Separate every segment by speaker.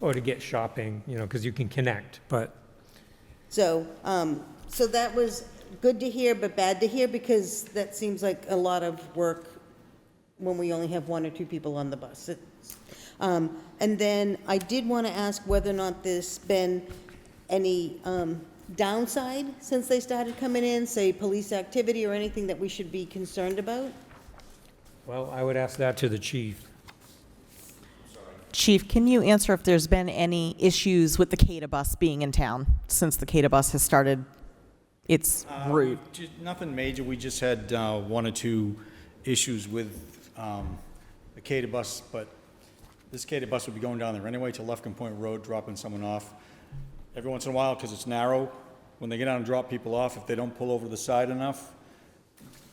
Speaker 1: or to get shopping, you know, because you can connect, but
Speaker 2: So, um, so that was good to hear, but bad to hear, because that seems like a lot of work when we only have one or two people on the bus. It's- Um, and then I did want to ask whether or not there's been any, um, downside since they started coming in, say, police activity or anything that we should be concerned about?
Speaker 1: Well, I would ask that to the chief.
Speaker 3: Chief, can you answer if there's been any issues with the CADA bus being in town since the CADA bus has started its route?
Speaker 4: Ju- Nothing major, we just had uh, one or two issues with um, the Cada bus, but this Cada bus would be going down there anyway to Lefkin Point Road, dropping someone off. Every once in a while, because it's narrow, when they get out and drop people off, if they don't pull over to the side enough,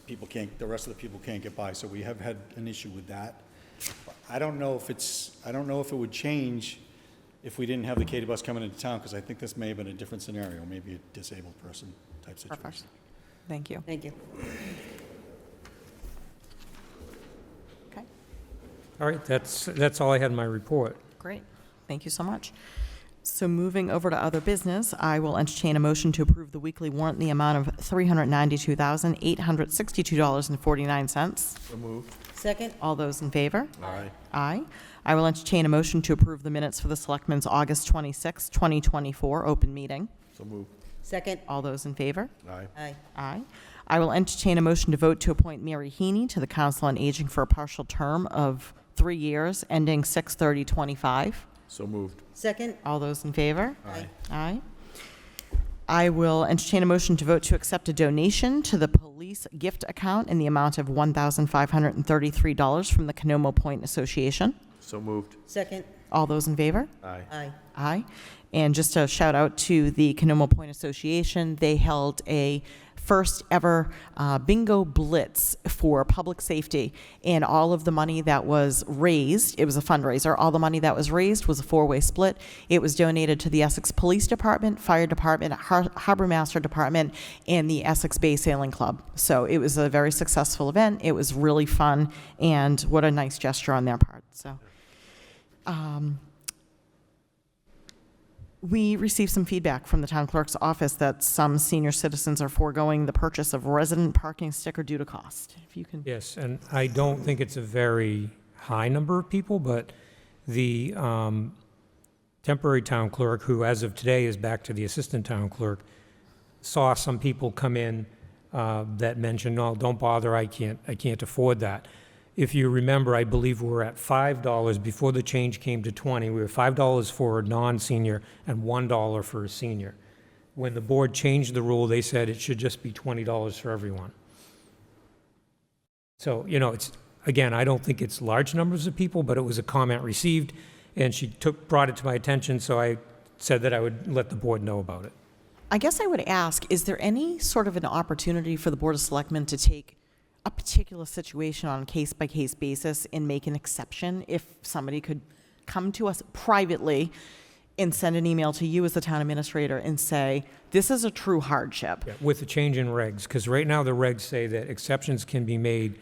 Speaker 4: people can't, the rest of the people can't get by, so we have had an issue with that. I don't know if it's, I don't know if it would change if we didn't have the Cada bus coming into town, because I think this may have been a different scenario, maybe a disabled person type situation.
Speaker 3: Thank you.
Speaker 2: Thank you.
Speaker 3: Okay,
Speaker 1: All right, that's, that's all I had in my report.
Speaker 3: great. Thank you so much. So moving over to other business, I will entertain a motion to approve the weekly warrant in the amount of $392,862.49.
Speaker 2: Second?
Speaker 3: All those in favor?
Speaker 4: Aye.
Speaker 3: Aye. I will entertain a motion to approve the minutes for the Selectmen's August 26, 2024 open meeting.
Speaker 4: So move.
Speaker 2: Second?
Speaker 3: All those in favor?
Speaker 4: Aye.
Speaker 2: Aye.
Speaker 3: Aye. I will entertain a motion to vote to appoint Mary Heaney to the Council on Aging for a partial term of three years, ending 6/30/25.
Speaker 4: So moved.
Speaker 2: Second?
Speaker 3: All those in favor?
Speaker 2: Aye.
Speaker 3: Aye. I will entertain a motion to vote to accept a donation to the police gift account in the amount of $1,533 from the Canomo Point Association.
Speaker 4: So moved.
Speaker 2: Second?
Speaker 3: All those in favor?
Speaker 4: Aye.
Speaker 2: Aye.
Speaker 3: Aye. And just a shout out to the Canomo Point Association. They held a first ever uh, bingo blitz for public safety. And all of the money that was raised, it was a fundraiser, all the money that was raised was a four way split. It was donated to the Essex Police Department, Fire Department, Har- Harbor Master Department, and the Essex Bay Sailing Club. So it was a very successful event. It was really fun, and what a nice gesture on their part. So. We received some feedback from the town clerk's office that some senior citizens are foregoing the purchase of resident parking sticker due to cost. If you can,
Speaker 1: Yes, and I don't think it's a very high number of people, but the um, temporary town clerk, who as of today is back to the assistant town clerk, saw some people come in uh, that mentioned, no, don't bother, I can't, I can't afford that. If you remember, I believe we were at $5 before the change came to 20. We were $5 for a non-senior and $1 for a senior. When the board changed the rule, they said it should just be $20 for everyone. So, you know, it's, again, I don't think it's large numbers of people, but it was a comment received, and she took, brought it to my attention, so I said that I would let the board know about it.
Speaker 3: I guess I would ask, is there any sort of an opportunity for the Board of Selectmen to take a particular situation on a case-by-case basis and make an exception if somebody could come to us privately and send an email to you as the town administrator and say, this is a true hardship?
Speaker 1: Yeah, With the change in regs, because right now the regs say that exceptions can be made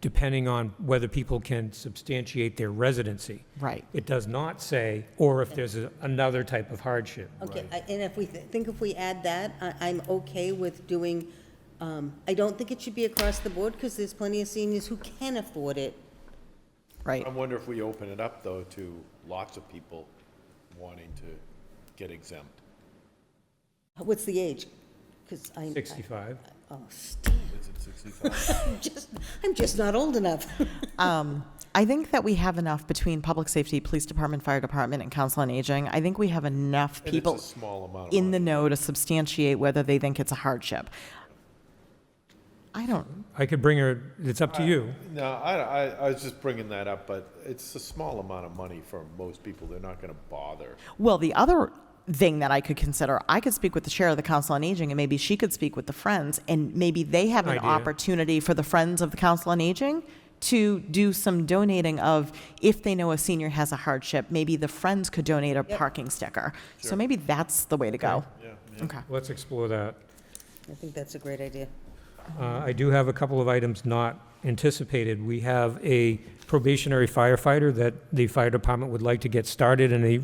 Speaker 1: depending on whether people can substantiate their residency.
Speaker 3: Right.
Speaker 1: It does not say, or if there's a- another type of hardship.
Speaker 2: Okay, I- and if we, th- think if we add that, I- I'm okay with doing, um, I don't think it should be across the board, because there's plenty of seniors who can afford it.
Speaker 3: Right.
Speaker 5: I wonder if we open it up, though, to lots of people wanting to get exempt.
Speaker 2: What's the age? 'Cause I'm.
Speaker 1: 65.
Speaker 2: Oh, damn. Is it 65? I'm just not old enough.
Speaker 3: Um, I think that we have enough between public safety, police department, fire department, and council on aging. I think we have enough
Speaker 5: And it's a
Speaker 3: people
Speaker 5: small amount of
Speaker 3: in the
Speaker 5: money.
Speaker 3: know to substantiate whether they think it's a hardship. I don't,
Speaker 1: I could bring her, it's up to you.
Speaker 5: No, I, I, I was just bringing that up, but it's a small amount of money for most people. They're not gonna bother.
Speaker 3: well, the other thing that I could consider, I could speak with the chair of the council on aging, and maybe she could speak with the friends, and maybe they have an
Speaker 1: Idea.
Speaker 3: opportunity for the friends of the council on aging to do some donating of, if they know a senior has a hardship, maybe the friends could donate a parking sticker. So maybe that's the way to go. Okay.
Speaker 1: Let's explore that.
Speaker 2: I think that's a great idea.
Speaker 1: Uh, I do have a couple of items not anticipated. We have a probationary firefighter that the fire department would like to get started, and a